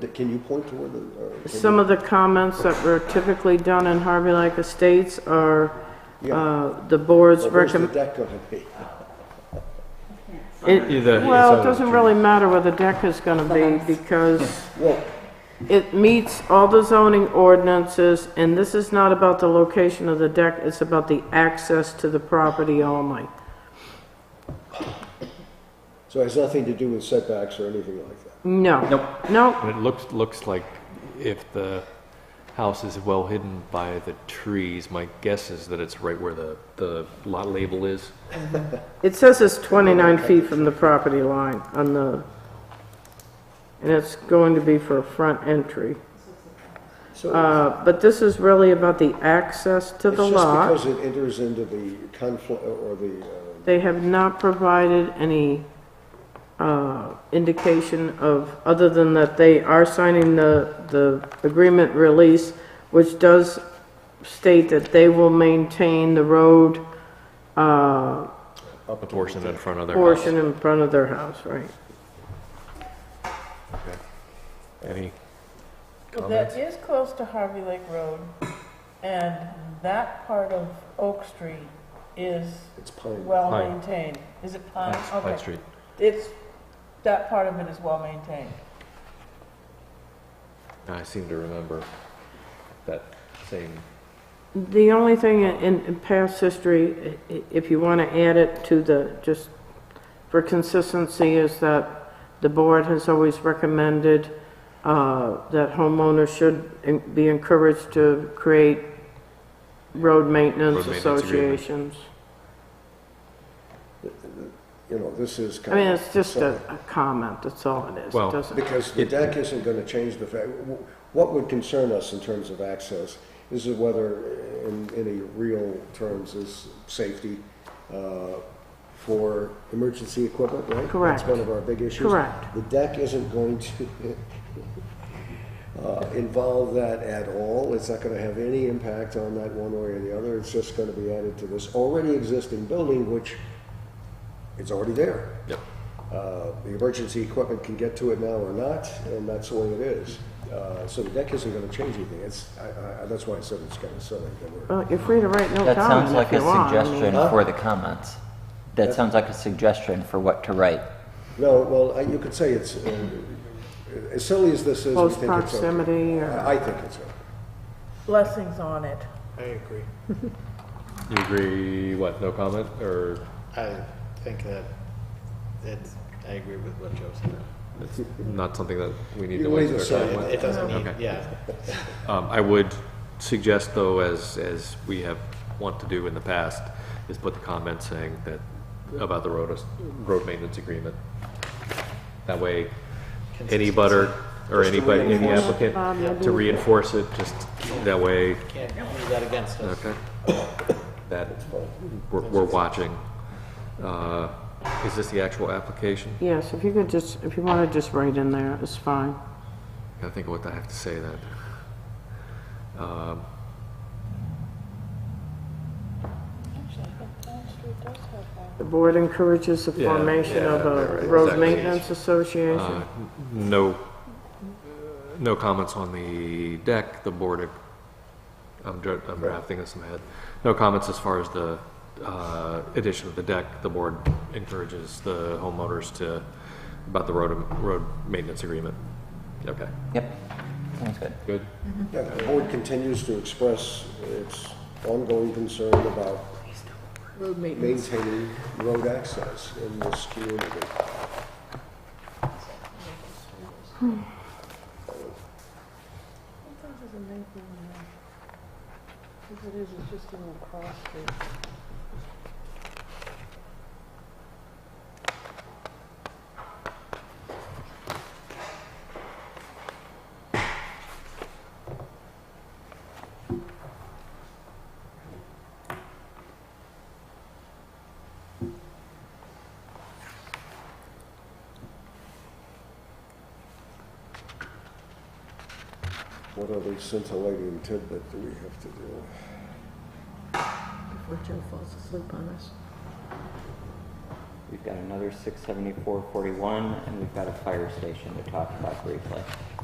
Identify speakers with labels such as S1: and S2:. S1: That- Can you point to where the? uh, or can
S2: Some of the comments that were typically done in Harvey Lake Estates are
S1: you- yeah.
S2: uh, the board's
S1: Well, Where's the
S2: recommend.
S1: deck gonna be?
S3: Either-
S2: Well, it
S3: either
S2: doesn't
S3: two.
S2: really matter where the deck is going to be because
S1: Well,
S2: it meets all the zoning ordinances, and this is not about the location of the deck, it's about the access to the property only.
S1: so it has nothing to do with setbacks or anything like that.
S2: No.
S3: Nope.
S2: No,
S3: And it looks, looks like if the house is well hidden by the trees, my guess is that it's right where the, the lot label is.
S2: it says it's 29 feet from the property line on the, and it's going to be for a front entry.
S1: So
S2: Uh, But this is really about the access to
S1: it's
S2: the
S1: just
S2: lot.
S1: because it enters into the conflict or the, uh,
S2: They have not provided any uh, indication of, other than that they are signing the, the agreement release, which does state that they will maintain the road uh,
S3: The portion in front of their house.
S2: portion in front of their house, right?
S3: Any
S4: Well, that is close to Harvey Lake Road, and that part of Oak Street is
S1: it's pine.
S4: well
S3: Pine.
S4: maintained. Is it
S2: uh,
S4: Pine?
S3: Pine
S4: Okay.
S3: Pine Street?
S4: It's, that part of it is well maintained.
S3: I seem to remember that same,
S2: The only thing in- in, in past history, i- i- if you want to add it to the, just for consistency, is that the board has always recommended uh, that homeowners should en- be encouraged to create road maintenance
S3: Road maintenance agreement.
S2: associations.
S1: You know, this is
S2: I
S1: kind of.
S2: mean, it's just a, a comment, that's all it is.
S3: Well,
S2: It doesn't,
S1: Because the deck isn't going to change the fact, w- what would concern us in terms of access is whether, uh, in any real terms, is safety uh, for emergency equipment, right?
S2: Correct.
S1: That's one of our big issues.
S2: Correct.
S1: The deck isn't going to uh, involve that at all. It's not going to have any impact on that one way or the other. It's just going to be added to this already existing building, which it's already there.
S3: yep.
S1: Uh, The emergency equipment can get to it now or not, and that's the way it is. Uh, So the deck isn't going to change anything. It's, I- I- that's why I said it's kind of silly that we're,
S2: well, you're free to write no
S5: That sounds
S2: comment
S5: like
S2: if
S5: a
S2: you want. I mean-
S5: suggestion for the comments. That sounds like a suggestion for what to write.
S1: no, well, I- you could say it's, uh, as silly as this is, we
S2: Close
S1: think it's okay.
S2: proximity or-
S1: I I think it's okay.
S4: Blessings on it.
S6: I agree.
S3: You agree, what, no comment, or
S6: I think that it's, I agree with what Joe said.
S3: it's not something that we need
S1: You
S3: to
S1: wait
S3: waste
S1: and
S3: our
S1: see.
S3: time with?
S6: It- It doesn't need,
S3: Okay.
S6: yeah.
S3: Um, I would suggest, though, as, as we have, want to do in the past, is put the comment saying that, about the road, road maintenance agreement. That way, any butter, or anybody, any applicant, to reinforce it, just that way,
S6: Can't use that against us.
S3: okay? That, we're, we're watching. Uh, is this the actual application?
S2: Yes, if you could just, if you want to just write in there, it's fine.
S3: Gotta think of what I have to say then. Um,
S2: The board encourages the
S3: Yeah,
S2: formation
S3: yeah,
S2: of
S3: right,
S2: a
S3: right,
S2: road
S3: exactly.
S2: maintenance association.
S3: Uh, No, no comments on the deck, the board, I'm dra- I'm drafting this in my head. No comments as far as the uh, addition of the deck. The board encourages the homeowners to, about the road, road maintenance agreement. Okay,
S5: Yep, sounds good.
S3: good.
S1: Yeah, The board continues to express its ongoing concern about
S4: Road maintenance.
S1: maintaining road access in this community.
S4: Sometimes it's a maple one. If it is, it's just a little cross street.
S1: What other scintillating tidbit do we have to do?
S4: Before Joe falls asleep on us.
S5: We've got another 67441, and we've got a fire station to talk about briefly.